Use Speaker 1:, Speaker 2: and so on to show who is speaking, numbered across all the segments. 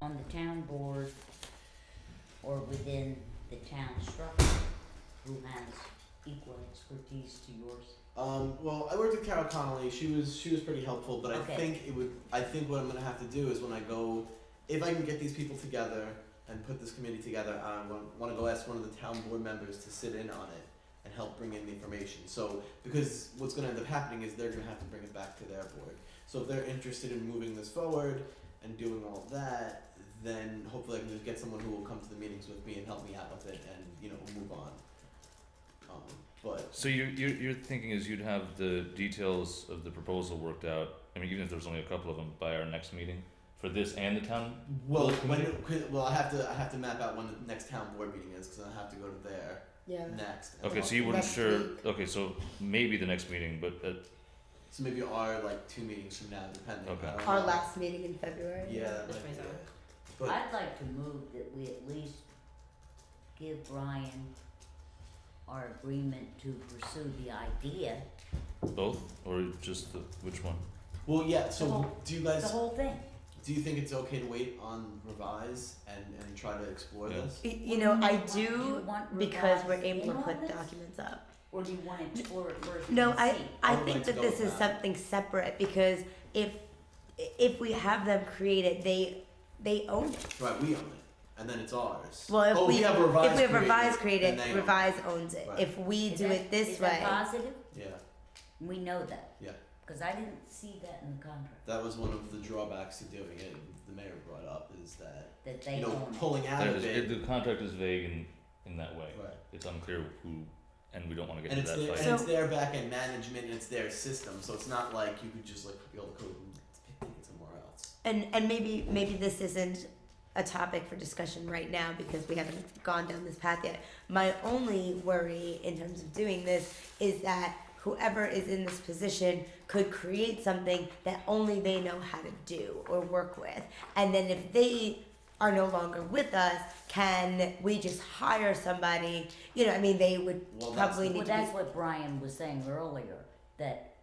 Speaker 1: on the town board or within the town structure who has equal expertise to yours?
Speaker 2: Um, well, I worked with Carol Connolly. She was she was pretty helpful, but
Speaker 1: Okay.
Speaker 2: I think it would. I think what I'm gonna have to do is when I go, if I can get these people together and put this committee together, I want to go ask one of the town board members to sit in on it and help bring in the information. So because what's gonna end up happening is they're gonna have to bring it back to their board. So if they're interested in moving this forward and doing all that, then hopefully I can just get someone who will come to the meetings with me and help me out with it, and you know move on. Um, but
Speaker 3: So you you you're thinking is you'd have the details of the proposal worked out. I mean, even if there's only a couple of them by our next meeting for this and the town.
Speaker 2: Well,
Speaker 3: Well,
Speaker 2: when could- well, I have to I have to map out when the next town board meeting is because I have to go to there
Speaker 4: Yeah.
Speaker 2: next. and
Speaker 3: Okay,
Speaker 2: talk
Speaker 3: so you
Speaker 2: to-
Speaker 3: weren't
Speaker 4: Next
Speaker 3: sure.
Speaker 4: week.
Speaker 3: Okay, so maybe the next meeting, but uh,
Speaker 2: So maybe our like two meetings from now, depending.
Speaker 3: Okay.
Speaker 2: I don't
Speaker 4: Our
Speaker 2: know.
Speaker 4: last meeting in February.
Speaker 2: Yeah, that
Speaker 5: Which
Speaker 2: might
Speaker 5: way
Speaker 2: be
Speaker 5: is
Speaker 2: it.
Speaker 5: that?
Speaker 2: But
Speaker 1: I'd like to move that we at least give Brian our agreement to pursue the idea,
Speaker 3: both or just the, which one?
Speaker 2: well, yeah.
Speaker 1: The
Speaker 2: So
Speaker 1: whole-
Speaker 2: do you
Speaker 1: the
Speaker 2: guys
Speaker 1: whole thing.
Speaker 2: do you think it's okay to wait on revise and and try to explore
Speaker 3: Yeah.
Speaker 2: this?
Speaker 4: Y- You know, I
Speaker 1: Do you
Speaker 4: do
Speaker 1: want
Speaker 4: because
Speaker 1: revised
Speaker 4: we're able to
Speaker 1: in
Speaker 4: put
Speaker 1: on this?
Speaker 4: documents up.
Speaker 1: Or do you wanna explore it first
Speaker 4: No,
Speaker 1: and
Speaker 4: I
Speaker 1: see?
Speaker 4: I
Speaker 2: I would
Speaker 4: think
Speaker 2: like to
Speaker 4: that
Speaker 2: go
Speaker 4: this
Speaker 2: with that.
Speaker 4: is something separate because if if we have them created, they they own it.
Speaker 2: Right, we own it, and then it's ours.
Speaker 4: Well, if
Speaker 2: oh,
Speaker 4: we,
Speaker 2: we have
Speaker 4: if
Speaker 2: revise.
Speaker 4: we have revise
Speaker 2: created, then
Speaker 4: created,
Speaker 2: they own it.
Speaker 4: revise owns it.
Speaker 2: Right.
Speaker 4: If we
Speaker 1: Is
Speaker 4: do
Speaker 1: that-
Speaker 4: it this
Speaker 1: is
Speaker 4: way,
Speaker 1: that positive?
Speaker 2: Yeah,
Speaker 1: We know that.
Speaker 2: Yeah.
Speaker 1: Cause I didn't see that in the contract,
Speaker 2: that was one of the drawbacks to doing it. The mayor brought up is that
Speaker 1: that they
Speaker 2: you know
Speaker 1: own it.
Speaker 2: pulling out
Speaker 3: That
Speaker 2: of
Speaker 3: is,
Speaker 2: it.
Speaker 3: it, the contract is vague in in that way.
Speaker 2: right.
Speaker 3: It's unclear who, and we don't want to get
Speaker 2: and
Speaker 3: into
Speaker 2: it's
Speaker 3: that
Speaker 2: their,
Speaker 3: fight.
Speaker 2: and it's
Speaker 4: So-
Speaker 2: their back end management and it's their system, so it's not like you could just like copy all the code and take it somewhere else.
Speaker 4: and and maybe maybe this isn't a topic for discussion right now because we haven't gone down this path yet. My only worry in terms of doing this is that whoever is in this position could create something that only they know how to do or work with. And then if they are no longer with us, can we just hire somebody? You know, I mean, they would
Speaker 2: Well, that's
Speaker 4: probably
Speaker 2: the-
Speaker 4: need
Speaker 1: Well,
Speaker 4: to be
Speaker 1: that's what Brian was saying earlier, that,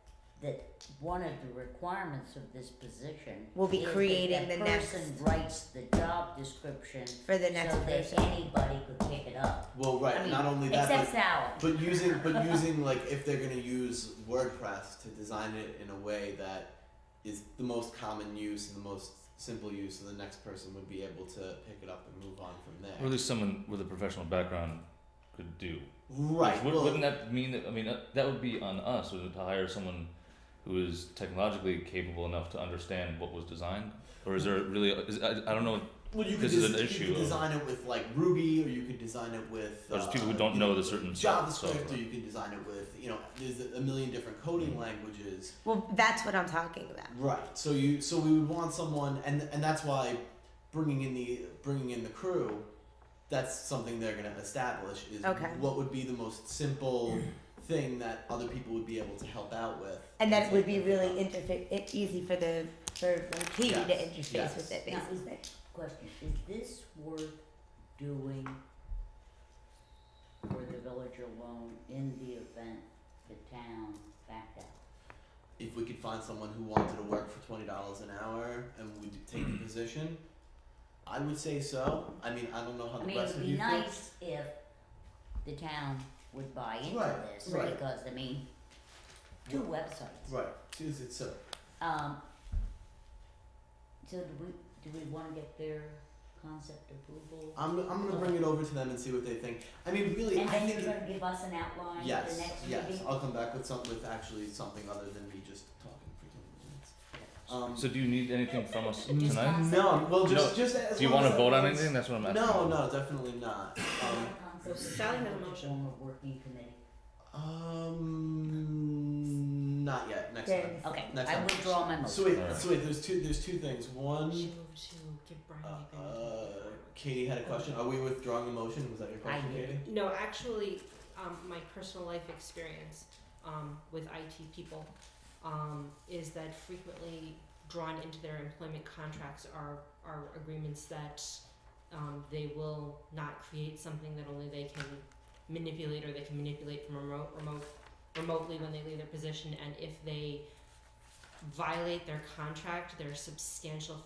Speaker 1: that one of the requirements of this position
Speaker 4: Will be
Speaker 1: is that
Speaker 4: creating
Speaker 1: that
Speaker 4: the
Speaker 1: person
Speaker 4: next-
Speaker 1: writes the job description
Speaker 4: for the next
Speaker 1: so that
Speaker 4: person.
Speaker 1: anybody could pick it up.
Speaker 2: Well, right,
Speaker 1: I mean,
Speaker 2: not only that,
Speaker 1: Except
Speaker 2: but,
Speaker 1: Sally.
Speaker 2: but using but using like if they're gonna use WordPress to design it in a way that is the most common use and the most simple use, so the next person would be able to pick it up and move on from there.
Speaker 3: Or at least someone with a professional background could do.
Speaker 2: Right.
Speaker 3: Would,
Speaker 2: well,
Speaker 3: wouldn't that mean that? I mean, uh, that would be on us wouldn't it, to hire someone who is technologically capable enough to understand what was designed. Or is there really? Is, I, I don't know.
Speaker 2: well, you could
Speaker 3: this is
Speaker 2: des-
Speaker 3: an
Speaker 2: you
Speaker 3: issue
Speaker 2: could
Speaker 3: of-
Speaker 2: design it with like Ruby, or you could design it with.
Speaker 3: There's
Speaker 2: uh,
Speaker 3: people who don't
Speaker 2: you
Speaker 3: know the certain stuff, so-
Speaker 2: JavaScript, or you can design it with you know. There's a million different
Speaker 3: Mm.
Speaker 2: coding languages.
Speaker 4: Well, that's what I'm talking about.
Speaker 2: Right. So you so we would want someone and and that's why bringing in the bringing in the crew that's something they're going to establish is
Speaker 4: Okay.
Speaker 2: what would be the most simple thing that other people would be able to help out with.
Speaker 4: And that it
Speaker 2: It's
Speaker 4: would
Speaker 2: like-
Speaker 4: be really interfa- i- easy for the for like he to
Speaker 2: Yes,
Speaker 4: interface
Speaker 2: yes.
Speaker 4: with it
Speaker 1: Now, is-
Speaker 4: basically.
Speaker 1: Question, is this worth doing for the village alone in the event the town backed out?
Speaker 2: if we could find someone who wanted to work for $20 an hour and would take
Speaker 3: Mm.
Speaker 2: the position, I would say so. I mean, I don't know how
Speaker 1: I
Speaker 2: the
Speaker 1: mean,
Speaker 2: rest
Speaker 1: it'd
Speaker 2: of
Speaker 1: be
Speaker 2: you feel.
Speaker 1: nice if the town would buy into
Speaker 2: Right,
Speaker 1: this,
Speaker 2: right.
Speaker 1: because, I mean, two websites,
Speaker 2: Right. Is it so?
Speaker 1: um. So do we, do we wanna get their concept approval?
Speaker 2: I'm, I'm going to bring it over to them and see what they think. I mean, really,
Speaker 1: And
Speaker 2: I
Speaker 1: then
Speaker 2: think
Speaker 1: you're
Speaker 2: it-
Speaker 1: gonna give us an outline for the
Speaker 2: Yes,
Speaker 1: next meeting?
Speaker 2: yes. I'll come back with some with actually something other than me just talking for two minutes.
Speaker 3: So do you need anything from us
Speaker 1: Just
Speaker 3: tonight?
Speaker 2: Um, no, well,
Speaker 3: You
Speaker 2: just just as
Speaker 3: Do you
Speaker 2: long
Speaker 3: want to
Speaker 2: as
Speaker 3: vote on
Speaker 2: everyone's-
Speaker 3: anything? That's what I'm asking.
Speaker 2: No, no, definitely not.
Speaker 5: So Sally had a motion.
Speaker 1: Form a working committee.
Speaker 2: Um, um, not yet. Next
Speaker 4: Yeah,
Speaker 2: time.
Speaker 1: Okay,
Speaker 2: Next
Speaker 1: I
Speaker 2: time.
Speaker 1: withdraw my
Speaker 2: So
Speaker 1: motion.
Speaker 2: wait,
Speaker 3: Alright.
Speaker 2: so wait. There's two. There's two things. One,
Speaker 5: to give Brian
Speaker 2: uh,
Speaker 5: the agreement.
Speaker 2: uh, Katie had a question. Are we withdrawing the motion? Was that your
Speaker 1: I
Speaker 2: question,
Speaker 1: did.
Speaker 2: Katie?
Speaker 5: No, actually, um, my personal life experience um, with IT people um, is that frequently drawn into their employment contracts are, are agreements that um, they will not create something that only they can manipulate or they can manipulate from remote, remote remotely when they leave their position and if they violate their contract there's substantial